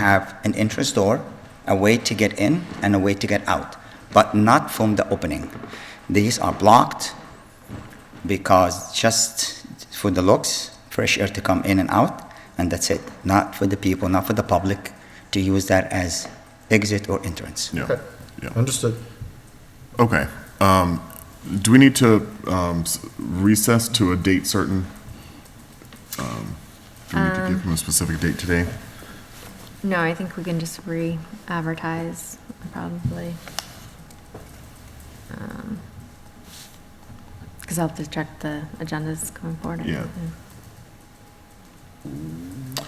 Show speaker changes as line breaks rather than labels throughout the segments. have an entrance door, a way to get in, and a way to get out, but not from the opening. These are blocked because just for the looks, fresh air to come in and out, and that's it. Not for the people, not for the public to use that as exit or entrance.
Yeah,
Okay.
yeah.
Understood.
Okay. Um, do we need to, um, s- recess to a date certain? Um, Do we need to give them a specific date today?
No, I think we can just re-advertise, probably. Because I'll have to check the agendas coming forward. I
Yeah.
don't know.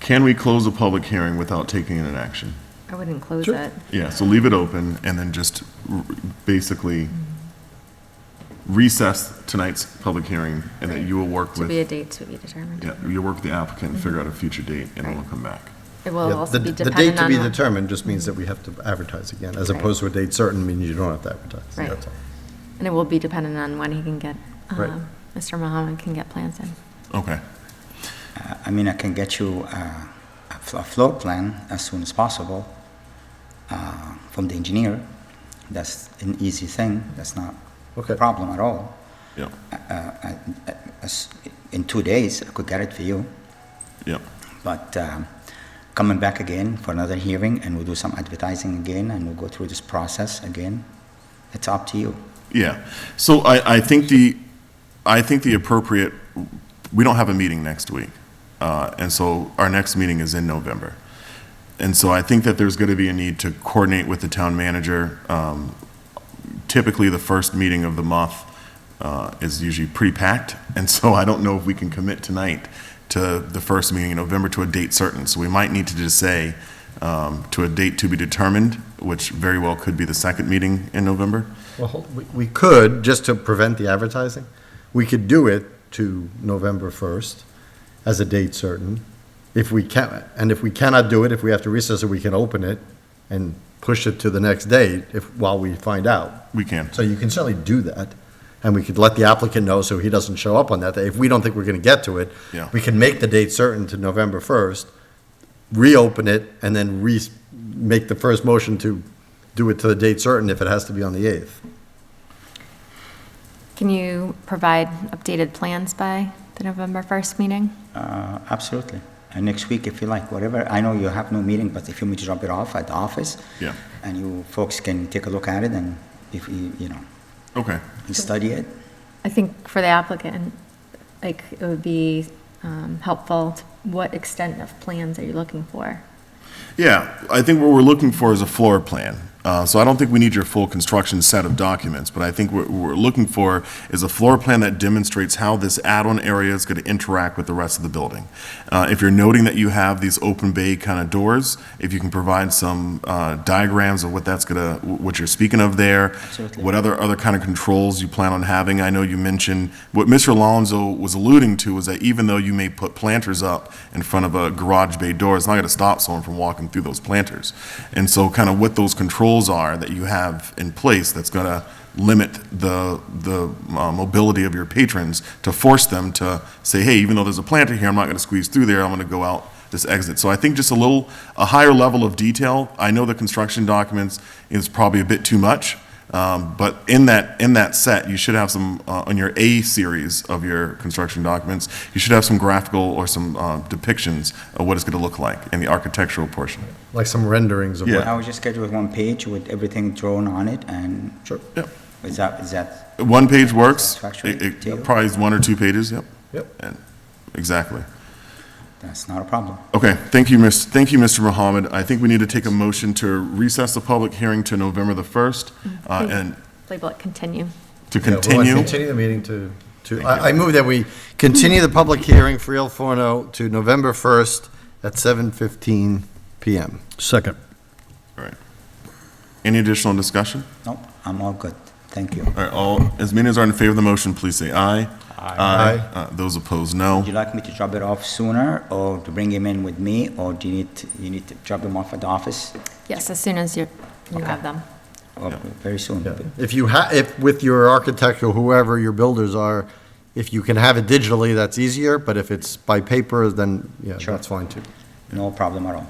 Can we close a public hearing without taking an action?
I wouldn't close
Sure.
it.
Yeah, so leave it open and then just r- basically recess tonight's public hearing and that you will work
To be a
with,
date to be determined.
yeah, you'll work with the applicant and figure out a future date and then we'll come back.
It will
Yeah,
also
the-
be
The date
dependent
to be
on, what-
determined just means that we have to advertise again, as
Right.
opposed to a date certain means you don't have to advertise.
Right.
That's all.
and it will be dependent on when he can get,
Right.
um, Mr. Mohammed can get plans in.
Okay.
Uh, I mean, I can get you uh, a fl- a floor plan as soon as possible uh, from the engineer. That's an easy thing. That's not a
Okay.
problem at all.
Yep,
I- I- as- in two days, I could get it for you,
yep.
but um, coming back again for another hearing, and we'll do some advertising again, and we'll go through this process again. It's up to you.
Yeah, so I, I think the, I think the appropriate, we don't have a meeting next week, uh, and so our next meeting is in November. And so I think that there's gonna be a need to coordinate with the town manager. Um, Typically, the first meeting of the month uh, is usually pretty packed, and so I don't know if we can commit tonight to the first meeting in November to a date certain. So we might need to just say, um, to a date to be determined, which very well could be the second meeting in November.
Well, hold- we- we could, just to prevent the advertising, we could do it to November 1st as a date certain, if we can, and if we cannot do it, if we have to recess it, we can open it and push it to the next date if, while we find out.
We can.
So you can certainly do that, and we could let the applicant know so he doesn't show up on that day. If we don't think we're gonna get to it,
Yeah.
we can make the date certain to November first, reopen it, and then re, make the first motion to do it to the date certain if it has to be on the eighth.
Can you provide updated plans by the November 1st meeting?
Uh, Absolutely. And next week, if you like, whatever, I know you have no meeting, but if you want me to drop it off at the office,
Yeah.
and you folks can take a look at it, and if you, you know,
Okay.
you study it,
I think for the applicant, like, it would be um, helpful, to- what extent of plans are you looking for?
Yeah, I think what we're looking for is a floor plan. Uh, So I don't think we need your full construction set of documents, but I think what we're looking for is a floor plan that demonstrates how this add-on area is going to interact with the rest of the building. Uh, If you're noting that you have these open bay kind of doors, if you can provide some uh, diagrams of what that's going to, what you're speaking of there,
Absolutely.
what other, other kind of controls you plan on having? I know you mentioned, what Mr. Alonso was alluding to was that even though you may put planters up in front of a garage bay door, it's not going to stop someone from walking through those planters. And so kind of what those controls are that you have in place that's going to limit the, the uh, mobility of your patrons to force them to say, hey, even though there's a planter here, I'm not going to squeeze through there, I'm going to go out this exit. So I think just a little, a higher level of detail. I know the construction documents is probably a bit too much, um, But in that, in that set, you should have some, uh, on your A series of your construction documents, you should have some graphical or some uh, depictions of what it's going to look like in the architectural portion.
Like some renderings of
Yeah.
what,
I was just schedule one page with everything drawn on it, and
sure,
Yep.
is that, is that,
One page works.
Satisfactory
It-
to you?
It probably is one or two pages, yep.
yep.
And- Exactly.
that's not a problem.
Okay, thank you, Mr., thank you, Mr. Mohammed. I think we need to take a motion to recess the public hearing to November the 1st uh, and
Label it continue.
to
Yeah, we'll
continue.
Continue the meeting to, to, I, I move that we continue the public hearing for Il Forno to November first at seven fifteen PM.
Second.
All right. Any additional discussion?
No, I'm all good. Thank you.
All right, all, as many as are in favor of the motion, please say aye.
Aye.
Uh, Those opposed,
Would you
no.
like me to drop it off sooner, or to bring him in with me, or do you need, to- you need to drop him off at the office?
Yes, as soon as you, you
Okay.
have them.
Or very soon?
Yeah. If you ha, if with your architect or whoever your builders are, if you can have it digitally, that's easier, but if it's by paper, then, yeah,
Sure.
that's fine too.
no problem at all.